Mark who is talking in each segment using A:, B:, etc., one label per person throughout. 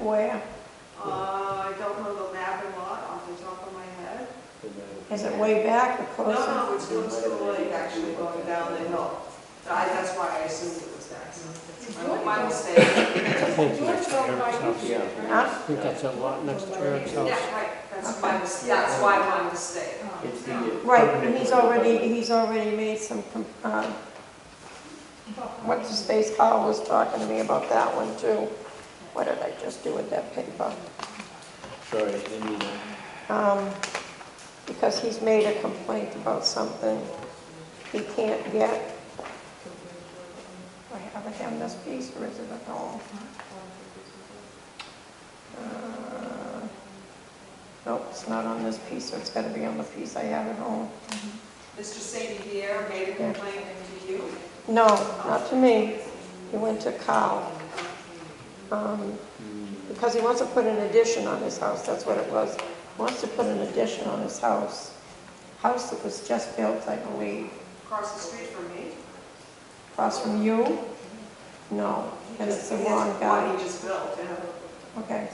A: Where?
B: Uh, I don't know the map and lot off the top of my head.
A: Is it way back or
B: No,
A: closer?
B: no, it's doing School Lake actually going down the hill. I, that's why I assumed it was that. My mistake.
A: Huh?
C: I think that's that lot next to Eric's
B: Yeah,
C: house.
B: right, that's my mistake, that's why my mistake.
D: Oh.
E: It's the, uh,
A: Right, and he's already, he's already made some, com- um, what's his face, Carl was talking to me about that one too. What did I just do with that paper?
E: Sorry, I need a-
A: Um, because he's made a complaint about something he can't get. Do I have it in this piece or is it at home? Uh, Nope, it's not on this piece, so it's gotta be on the piece I have at home.
B: Mr. St. Pierre made a complaint to you.
A: No, not to me. He went to Kyle. Um, Because he wants to put an addition on his house, that's what it was. He Wants to put an addition on his house. House that was just built, I believe,
B: Across the street from me.
A: across from you? No, and it's the wrong
B: One
A: guy.
B: he just built, and
A: Okay,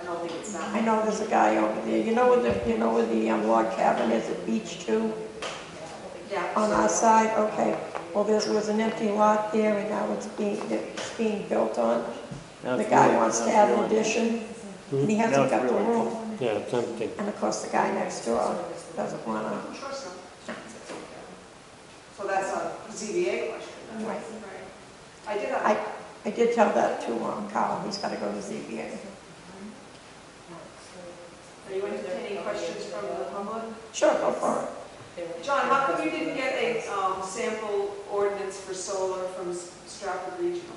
B: I don't think it's
A: I
B: that.
A: know there's a guy over there. You know where the, you know where the um, log cabin is at Beach Two?
B: Yeah,
A: On our side, okay. Well, there was an empty lot there and now it's being, it's being built on.
E: Now
A: The
E: it's
A: guy
E: really-
A: wants to
E: now
A: add
E: it's
A: an
E: really-
A: addition, and he
E: No,
A: hasn't
E: it's
A: got the
E: really-
A: room.
C: Yeah, it's empty.
A: And of course, the guy next door doesn't wanna,
B: I'm sure so. So that's a ZBA question. then.
A: Right.
B: I did have.
A: I, I did tell that to um, Kyle, he's gotta go to ZBA.
B: Are you entertaining questions from the public?
A: Sure, go for it.
B: John, how come you didn't get a um, sample ordinance for solar from S- Stratford Regional?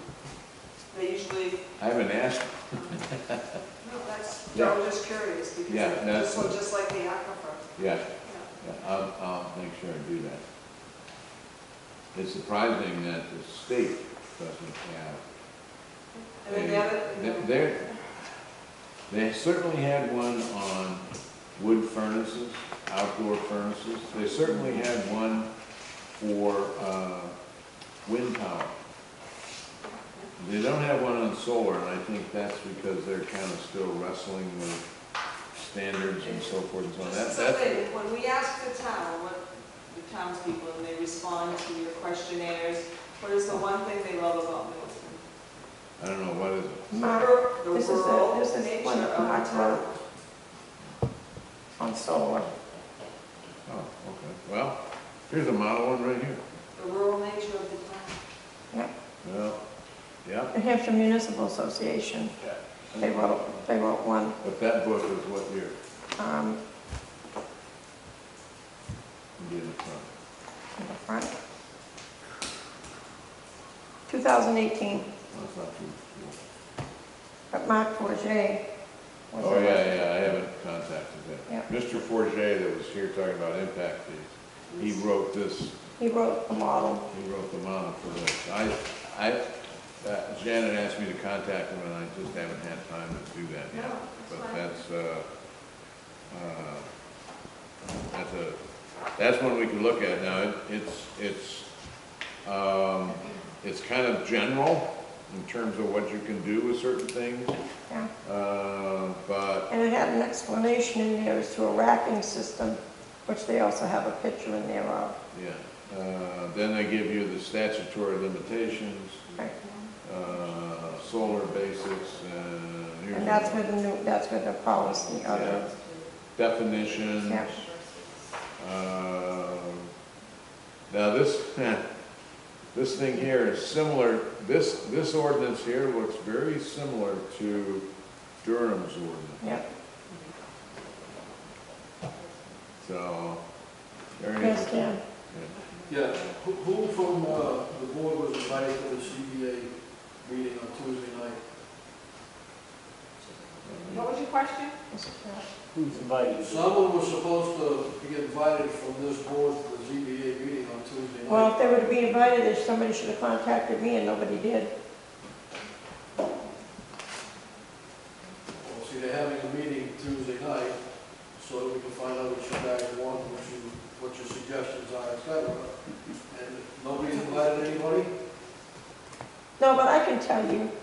B: They usually,
F: I haven't asked,
B: no, that's, I was just curious, because
F: Yeah,
B: it
F: no,
B: just
F: it's-
B: looked just like the aquifer.
F: yeah,
B: Yeah.
F: yeah, I'll, I'll make sure I do that. It's surprising that the state doesn't
B: And then the
F: have.
B: other,
F: a- They're, they certainly had one on wood furnaces, outdoor furnaces. They certainly had one for, uh, wind power. They don't have one on solar, and I think that's because they're kind of still wrestling with standards and so forth and so on. That-
B: just
F: That's
B: something, when we ask the town, what, the townspeople, and they respond to your questionnaires, what is the one thing they love about Middleton?
F: I don't know, what is it?
A: Mark,
B: The
A: this is
B: rural
A: a, this is
B: nature
A: one
B: of
A: that
B: our
A: Mark
B: town.
A: wrote on solar.
F: Oh, okay, well, here's a model one right here.
B: The rural nature of the town.
F: Well, yeah,
A: New Hampshire Municipal Association, they wrote, they wrote one,
F: but that book is what year?
A: um,
F: It'd be in the front.
A: in the front. 2018,
F: That's not too cool.
A: but Mark Forget was.
F: Oh,
A: the-
F: yeah, yeah, I haven't contacted
A: Yeah.
F: him. Mr. Forget that was here talking about impact fees, he wrote this,
A: He wrote the model.
F: he wrote the model for this. I, I, uh, Janet asked me to contact him, and I just haven't had time to do that
B: No,
F: yet.
B: that's
F: But
B: fine.
F: that's, uh, uh, that's a, that's one we can look at now. It- It's, it's, um, it's kind of general in terms of what you can do with certain things.
A: Yeah.
F: Uh, but,
A: And it had an explanation in there as to a racking system, which they also have a picture in there of.
F: yeah, uh, then they give you the statutory limitations,
A: Right.
F: uh, solar basics, uh, and here's.
A: And that's where the new, that's where the policy of
F: Yeah.
A: it.
F: definitions.
A: Yeah.
F: Um, Now, this, this thing here is similar, this, this ordinance here looks very similar to Durham's ordinance.
A: Yep.
F: So, there you
A: Yes,
F: go.
A: Dan.
D: Yeah, who, who from, uh, the board was invited to the CBA meeting on Tuesday night?
B: What was your question?
C: Who's invited?
D: Someone was supposed to be invited from this board to the ZBA meeting on Tuesday
A: Well,
D: night.
A: if they were to be invited, if somebody should have contacted me and nobody did.
D: Well, see, they're having a meeting Tuesday night, so that we can find out what you guys want, what you, what your suggestions are, et cetera. And nobody's invited anybody?
A: No, but I can tell you,